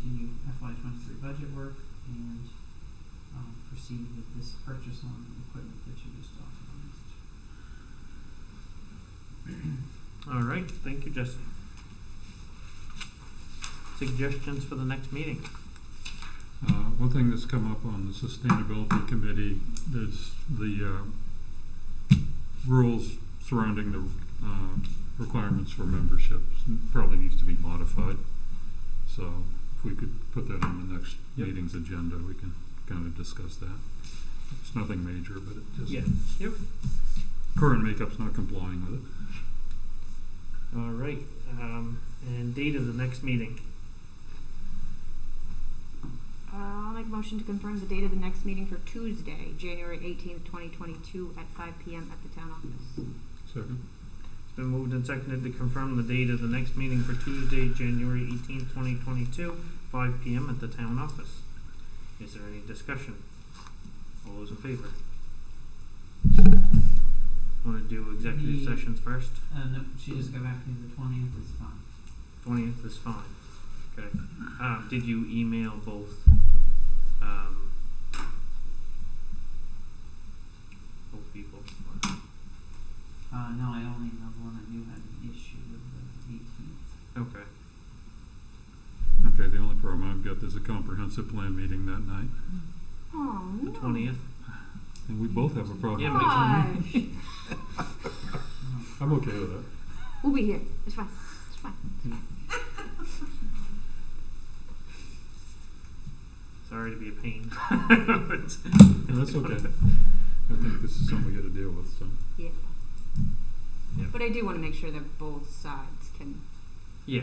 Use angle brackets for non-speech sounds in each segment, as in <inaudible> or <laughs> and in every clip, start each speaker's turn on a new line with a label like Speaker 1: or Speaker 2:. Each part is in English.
Speaker 1: FY twenty-three budget work and, um, proceed with this purchase on equipment that you just authorized.
Speaker 2: All right, thank you, Jesse. Suggestions for the next meeting?
Speaker 3: Uh, one thing that's come up on the sustainability committee is the, uh, rules surrounding the, uh, requirements for memberships probably needs to be modified. So if we could put that on the next
Speaker 2: Yep.
Speaker 3: meeting's agenda, we can kind of discuss that. It's nothing major, but it
Speaker 2: Yeah.
Speaker 3: just,
Speaker 2: Yep.
Speaker 3: current makeup's not complying with it.
Speaker 2: All right, um, and date of the next meeting.
Speaker 4: Uh, I'll make a motion to confirm the date of the next meeting for Tuesday, January eighteenth, twenty twenty-two, at five PM at the town office.
Speaker 3: Second?
Speaker 2: It's been moved and seconded to confirm the date of the next meeting for Tuesday, January eighteenth, twenty twenty-two, five P M at the town office. Is there any discussion? All those in favor? Wanna do executive
Speaker 1: Me.
Speaker 2: sessions first?
Speaker 1: Uh, no, she just got back to me the twentieth, it's fine.
Speaker 2: Twentieth is fine. Okay. Um, did you email both? Um, both people. or-
Speaker 1: Uh, no, I only have one I knew had an issue with the eighteenth.
Speaker 2: Okay.
Speaker 3: Okay, the only problem I've got, there's a comprehensive plan meeting that night,
Speaker 1: Um,
Speaker 4: Oh,
Speaker 2: The twentieth.
Speaker 3: and we both have a problem.
Speaker 2: Yeah,
Speaker 4: Gosh,
Speaker 3: I'm okay with that.
Speaker 4: we'll be here, it's fine, it's fine.
Speaker 2: Sorry to be a pain. <laughs>
Speaker 3: No, that's okay. <laughs> I think this is something we gotta deal with, so.
Speaker 4: Yeah.
Speaker 2: Yeah.
Speaker 4: But I do wanna make sure that both sides can, <laughs>
Speaker 2: yeah.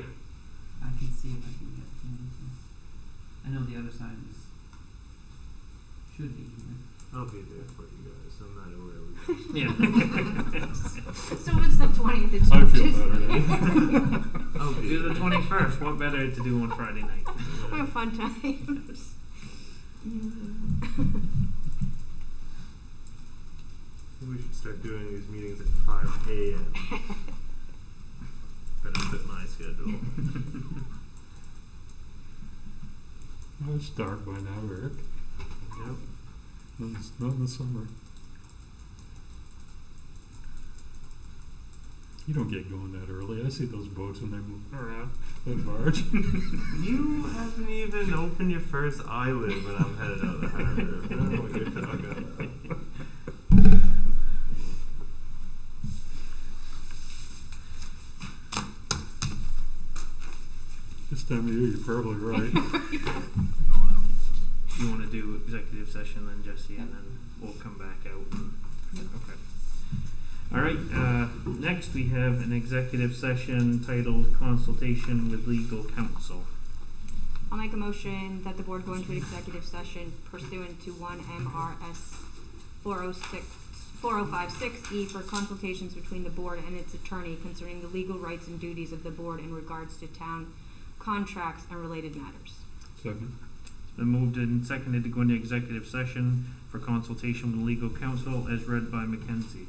Speaker 1: I can see if I can get them to. I know the other side is, should be here.
Speaker 5: I'll be there for you guys. I'm not aware of it.
Speaker 2: Yeah. <laughs>
Speaker 4: <laughs> so if it's the twentieth, it's
Speaker 3: I
Speaker 4: just.
Speaker 3: feel
Speaker 2: <laughs>
Speaker 3: better.
Speaker 5: I'll be
Speaker 2: Do Oh, the
Speaker 5: there.
Speaker 2: twenty first. What better to do on Friday
Speaker 4: <laughs>
Speaker 2: night?
Speaker 4: Have fun times.
Speaker 5: We should start doing these meetings at 5 a.m. Better fit my schedule.
Speaker 3: I'll start by now, Eric.
Speaker 5: Yep.
Speaker 3: Not in- not in the summer. You don't get going that early. I see those boats when they move around, that barge.
Speaker 5: You haven't even opened your first eyelid when I'm headed out of the house. <laughs> I don't know what you're talking about.
Speaker 3: <laughs> This time of year, you're probably right. <laughs>
Speaker 2: You want to do executive session then, Jesse, and then we'll come back out. And, Okay. All right. Uh, next, we have an executive session titled "Consultation with Legal Counsel."
Speaker 4: I'll make a motion that the board go into an executive session pursuant to one MRS 406 4056 E for consultations between the board and its attorney concerning the legal rights and duties of the board in regards to town contracts and related matters.
Speaker 3: Second?
Speaker 2: It's been moved and seconded to go into executive session for consultation with legal counsel, as read by Mackenzie.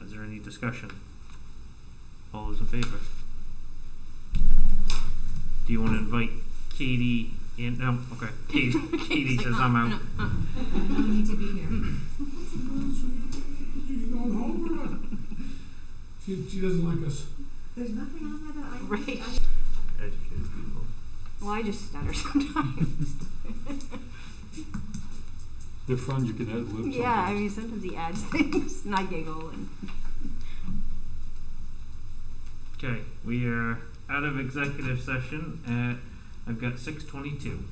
Speaker 2: Is there any discussion? All those in favor? Do you want to invite Katie in? No, okay.
Speaker 4: <laughs>
Speaker 2: Katie, Katie says
Speaker 4: "Oh,
Speaker 2: I'm out.
Speaker 4: uh, You need to be here.
Speaker 6: You going home or not? <laughs> She, she doesn't like us.
Speaker 7: There's nothing on there that I.
Speaker 4: <laughs> Right.
Speaker 7: I
Speaker 5: Educated people.
Speaker 4: Well, I just stutter sometimes.
Speaker 3: They're fun, you can add lips
Speaker 4: Yeah, I mean, sometimes he adds <laughs> things and I giggle and.
Speaker 2: Okay, we are out of executive session at, I've got six twenty-two.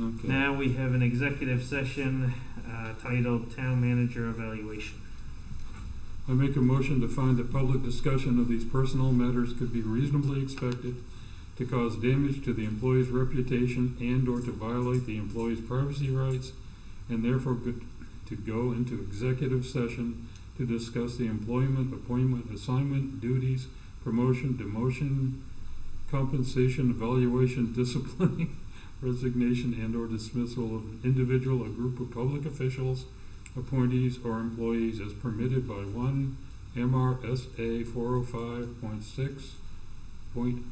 Speaker 3: Okay.
Speaker 2: Now we have an executive session, uh, titled Town Manager Evaluation.
Speaker 3: I make a motion to find that public discussion of these personal matters could be reasonably expected to cause damage to the employee's reputation and/or to violate the employee's privacy rights, and therefore could, to go into executive session to discuss the employment, appointment, assignment, duties, promotion, demotion, compensation, evaluation, <laughs> discipline, resignation, and/or dismissal of individual or group of public officials, appointees or employees as permitted by one MRSA four oh five point six point